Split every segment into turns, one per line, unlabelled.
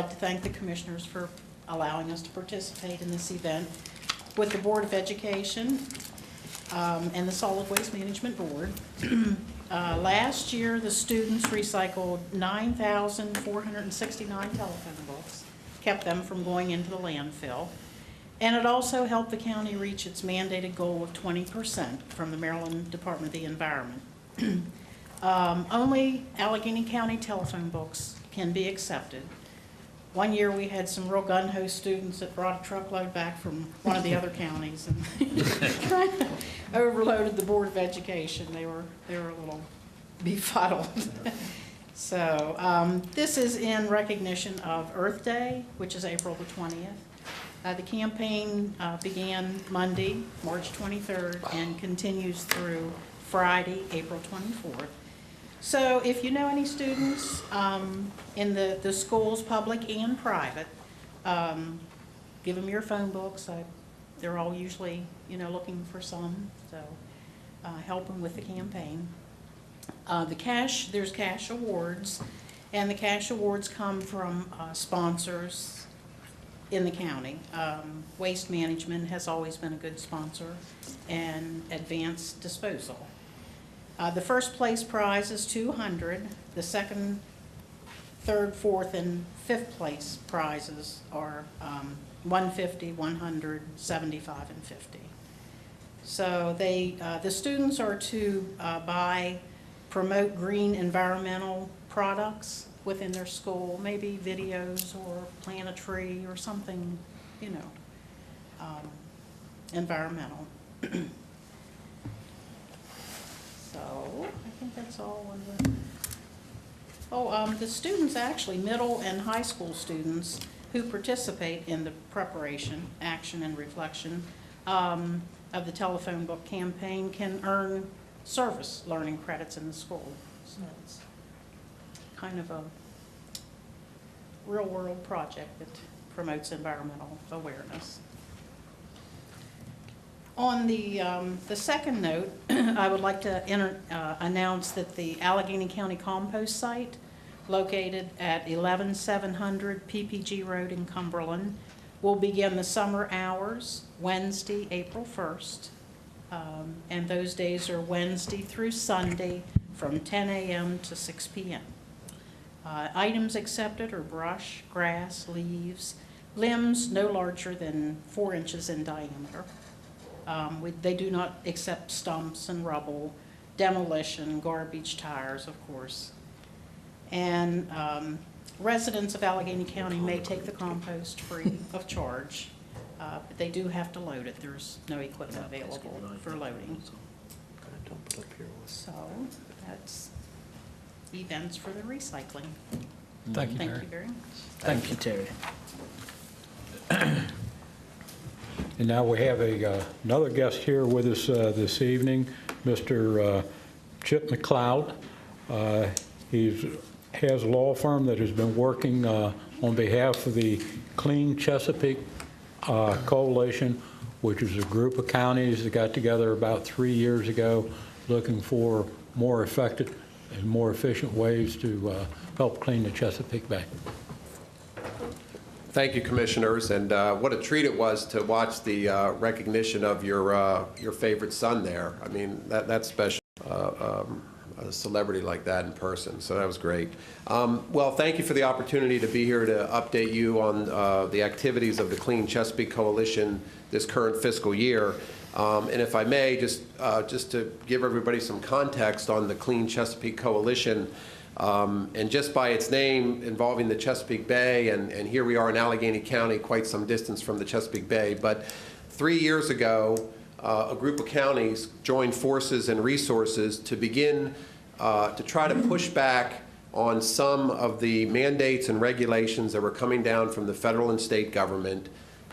I'd like to thank the commissioners for allowing us to participate in this event with the Board of Education um, and the Solid Waste Management Board. Uh, Last year, the students recycled 9,469 telephone books, kept them from going into the landfill. And it also helped the county reach its mandated goal of 20% from the Maryland Department of the Environment. Um, Only Allegheny County telephone books can be accepted. One year, we had some real gun-ho students that brought a truckload back from one of the other counties and kinda overloaded the Board of Education. They were, they were a little befuddled. So um, this is in recognition of Earth Day, which is April the 20th. Uh, The campaign uh, began Monday, March 23rd, and continues through Friday, April 24th. So if you know any students um, in the, the schools, public and private, um, give them your phone books. I- They're all usually, you know, looking for some, so uh, help them with the campaign. Uh, The cash, there's cash awards, and the cash awards come from uh, sponsors in the county. Um, Waste Management has always been a good sponsor, and Advanced Disposal. Uh, The first place prize is 200. The second, third, fourth, and fifth place prizes are um, 150, 100, 75, and 50. So they, uh, the students are to uh, buy, promote green environmental products within their school, maybe videos or plant a tree or something, you know, um, environmental. So, I think that's all on the, oh, um, the students, actually, middle and high school students who participate in the preparation, action, and reflection um, of the telephone book campaign can earn service learning credits in the school. So it's kind of a real-world project that promotes environmental awareness. On the, um, the second note, I would like to enter, uh, announce that the Allegheny County Compost Site, located at 11700 PPG Road in Cumberland, will begin the summer hours Wednesday, April 1st. Um, And those days are Wednesday through Sunday from 10 a.m. to 6 p.m. Uh, Items accepted are brush, grass, leaves, limbs no larger than four inches in diameter. Um, we- They do not accept stumps and rubble, demolition, garbage tires, of course. And um, residents of Allegheny County may take the compost free of charge, uh, but they do have to load it. There's no equipment available for loading. So that's events for the recycling.
Thank you,
Thank you
Terry.
very much.
Thank you.
Terry.
And now we have a, uh, another guest here with us uh, this evening, Mr. uh, Chip McLeod. Uh, He's, has a law firm that has been working uh, on behalf of the Clean Chesapeake uh, Coalition, which is a group of counties that got together about three years ago, looking for more effective and more efficient ways to uh, help clean the Chesapeake Bay.
Thank you, Commissioners, and uh, what a treat it was to watch the uh, recognition of your, uh, your favorite son there. I mean, that, that's special, uh, um, a celebrity like that in person, so that was great. Um, Well, thank you for the opportunity to be here to update you on uh, the activities of the Clean Chesapeake Coalition this current fiscal year. Um, And if I may, just, uh, just to give everybody some context on the Clean Chesapeake Coalition, um, And just by its name involving the Chesapeake Bay, and, and here we are in Allegheny County, quite some distance from the Chesapeake Bay. But three years ago, uh, a group of counties joined forces and resources to begin uh, to try to push back on some of the mandates and regulations that were coming down from the federal and state government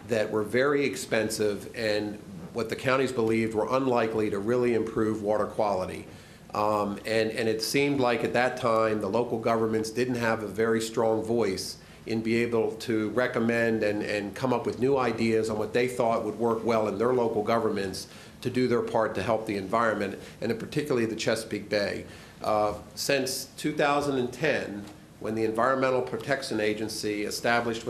that were very expensive and what the counties believed were unlikely to really improve water quality. Um, And, and it seemed like at that time, the local governments didn't have a very strong voice in be able to recommend and, and come up with new ideas on what they thought would work well in their local governments to do their part to help the environment, and particularly the Chesapeake Bay. Uh, Since 2010, when the Environmental Protection Agency established